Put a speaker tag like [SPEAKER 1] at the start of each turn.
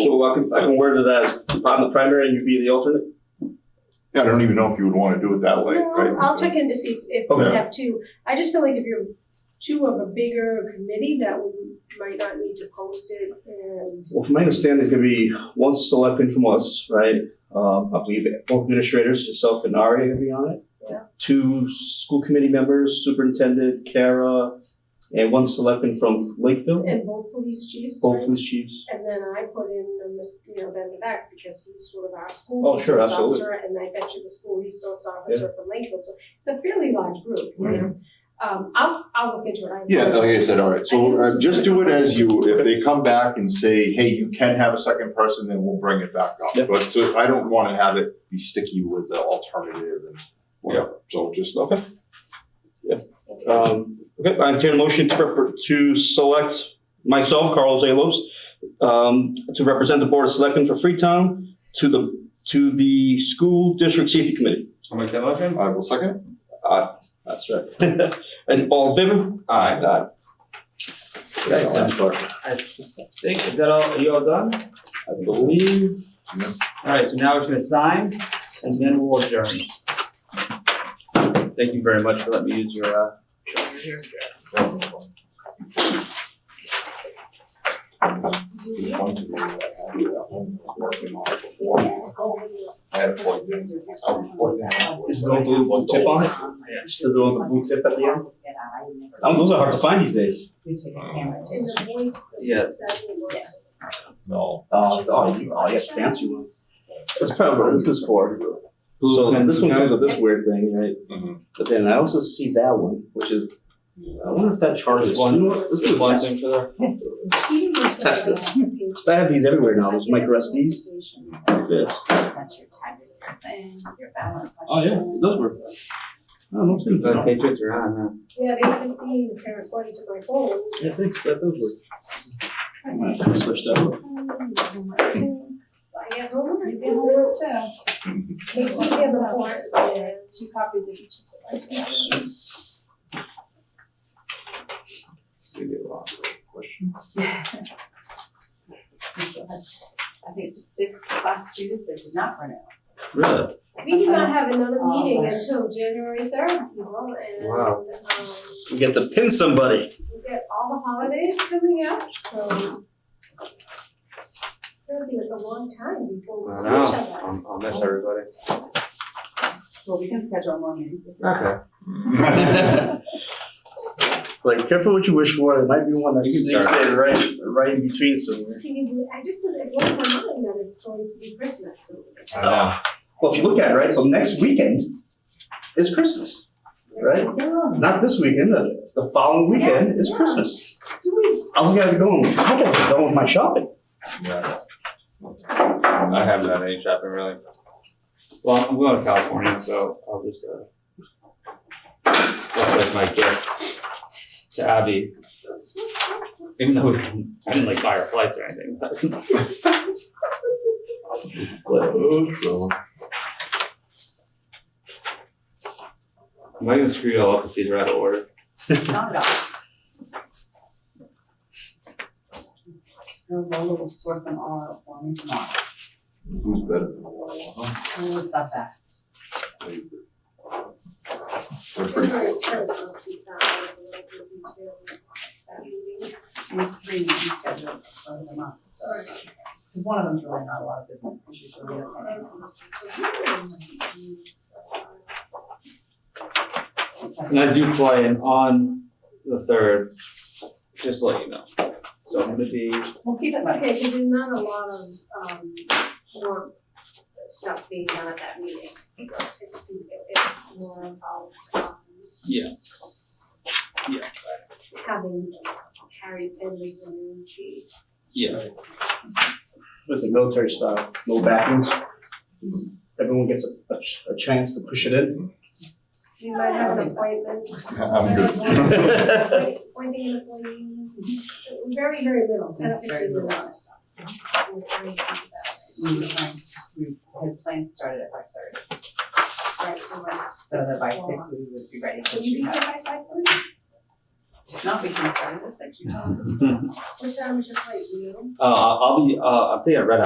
[SPEAKER 1] So I can, I can word it as I'm the primary and you be the alternate?
[SPEAKER 2] Yeah, I
[SPEAKER 1] Um,
[SPEAKER 2] don't even know if you would wanna do it that way,
[SPEAKER 3] No,
[SPEAKER 2] right?
[SPEAKER 3] I'll- I'll check in to see if we
[SPEAKER 2] Okay.
[SPEAKER 3] have two. I just feel like if you're two of a bigger committee, that we might not need to post it and.
[SPEAKER 1] Well, from my understanding, it's gonna be one selectman from us, right? Um, I believe both administrators, yourself and Ari are gonna be on it.
[SPEAKER 3] Yeah.
[SPEAKER 1] Two school committee members, superintendent, Kara, and one selectman from Lakeville,
[SPEAKER 3] And both police chiefs,
[SPEAKER 1] both
[SPEAKER 3] right?
[SPEAKER 1] police chiefs.
[SPEAKER 3] And then I put in, the mis- you know, Ben the back because he's sort of our
[SPEAKER 1] Oh,
[SPEAKER 3] school
[SPEAKER 1] sure,
[SPEAKER 3] resource
[SPEAKER 1] absolutely.
[SPEAKER 3] officer, and I bet you the school resource officer from Lakeville, so it's a fairly large group, you know?
[SPEAKER 1] Mm-hmm.
[SPEAKER 3] Um, I'll, I'll look into it. I
[SPEAKER 2] Yeah, like I said, all right, so uh, just do it as you, if they come back and say, hey, you can have a second person, then we'll bring it back
[SPEAKER 1] Yeah.
[SPEAKER 2] up. But so I don't wanna have it be sticky with the alternative and whatever, so just. Okay.
[SPEAKER 1] Um, okay, I entertain a motion to, rep- to select myself, Carlos A. Lopes, um, to represent the Board of Selectmen for Freetown to the, to the School District Safety Committee.
[SPEAKER 4] I'll make that motion.
[SPEAKER 2] I will second.
[SPEAKER 1] That's right. And all in favor?
[SPEAKER 4] Aye.
[SPEAKER 1] Aye. Okay, that's for-
[SPEAKER 4] I think, is that all, are you all done? I believe.
[SPEAKER 2] No.
[SPEAKER 4] Alright, so now we're just gonna sign and then we'll adjourn. Thank you very much for letting me use your, uh. charger here.
[SPEAKER 2] I had it plugged in. I was plugged in.
[SPEAKER 1] Is it going to blue tip on it? Is it on the blue tip at the end? Um, those are hard to find these days.
[SPEAKER 3] In the voice.
[SPEAKER 4] Yeah, it's-
[SPEAKER 3] that we work.
[SPEAKER 2] No.
[SPEAKER 1] Uh, oh, you, oh, you have fancy one. That's probably what this is for. So this one comes with this weird thing, right?
[SPEAKER 2] Mhm.
[SPEAKER 1] But then I also see that one, which is, I wonder if that charges.
[SPEAKER 4] Just one?
[SPEAKER 1] You know what? Let's do
[SPEAKER 4] Just one
[SPEAKER 1] that.
[SPEAKER 4] signature there.
[SPEAKER 1] Let's test this. So I have these everywhere now, those micro SDs. Yes.
[SPEAKER 5] That's your time and your balance.
[SPEAKER 1] Oh, yeah, it does work. I don't
[SPEAKER 4] The
[SPEAKER 1] know.
[SPEAKER 4] Patriots are on, uh, huh?
[SPEAKER 3] Yeah, they haven't been corresponding to my phone.
[SPEAKER 1] Yeah, thanks, that does work. I might have to switch that up.
[SPEAKER 3] I have homework, you get homework too. Makes me feel the part. uh,
[SPEAKER 5] Two copies of each of the.
[SPEAKER 4] So we get lost.
[SPEAKER 5] We still have, I think it's six class students that did not run out.
[SPEAKER 4] Really?
[SPEAKER 3] We do not have another meeting until January third, people, and, um,
[SPEAKER 4] Wow.
[SPEAKER 1] We get to pin somebody.
[SPEAKER 3] we get all the holidays coming up, so. It's gonna be like a long time before we
[SPEAKER 4] I
[SPEAKER 3] see each
[SPEAKER 4] know.
[SPEAKER 3] other.
[SPEAKER 4] I'll, I'll miss everybody.
[SPEAKER 5] Well, we can schedule more meetings. if you want.
[SPEAKER 4] Okay.
[SPEAKER 1] Like, careful what you wish for, there might be one that's.
[SPEAKER 4] You can start.
[SPEAKER 1] sitting right, right in between somewhere.
[SPEAKER 3] Can you believe- I just, I blow my mind that it's going to be Christmas soon.
[SPEAKER 1] Well, if you look at it, right, so next weekend is Christmas. Right. Not this weekend, the, the following weekend
[SPEAKER 3] Yes,
[SPEAKER 1] is
[SPEAKER 3] yeah.
[SPEAKER 1] Christmas.
[SPEAKER 3] Two weeks.
[SPEAKER 1] I was gonna go, and- I gotta go with my shopping.
[SPEAKER 2] Yeah.
[SPEAKER 4] I haven't done any shopping really. Well, I'm going to California, so I'll just, uh, that's like my gift to Abby. Even though we didn't, I didn't like buy her flights or anything, but. We split. Am I gonna screw you all up if these are out of order?
[SPEAKER 5] Not at all. Lola will sort them all out for me tomorrow.
[SPEAKER 2] Who's better than Lola?
[SPEAKER 5] Lola's the best.
[SPEAKER 2] They're pretty cool.
[SPEAKER 3] Well,
[SPEAKER 5] We have three meetings scheduled over the month, so. Because one of them's really not a lot of business, because she's really.
[SPEAKER 4] And I do fly in on the third, just to let you know. So I'm gonna be,
[SPEAKER 5] We'll keep it
[SPEAKER 3] It's
[SPEAKER 5] like
[SPEAKER 3] okay, because there's not a lot of, um, work stuff being done at that meeting. It's, it's more about, um,
[SPEAKER 4] yeah,
[SPEAKER 3] having Harry Penn as the new chief.
[SPEAKER 4] yeah.
[SPEAKER 1] Listen, military style, no backings. Everyone gets a, a, ch- a chance to push it in.
[SPEAKER 3] You might have an appointment.
[SPEAKER 2] I'm good.
[SPEAKER 3] Appointing an employee, very, very little, ten,
[SPEAKER 5] Very
[SPEAKER 3] fifteen
[SPEAKER 5] little.
[SPEAKER 3] minutes. We're trying to keep that.
[SPEAKER 5] we were trying, we had planned to start it at five thirty,
[SPEAKER 3] Right, so we're-
[SPEAKER 5] so that by six we would be ready. for
[SPEAKER 3] Can you be here by five thirty?
[SPEAKER 5] Not we can start at six, you know.
[SPEAKER 3] Which I'm just like you.
[SPEAKER 4] Uh, I'll I'll be, uh, I'll stay at Red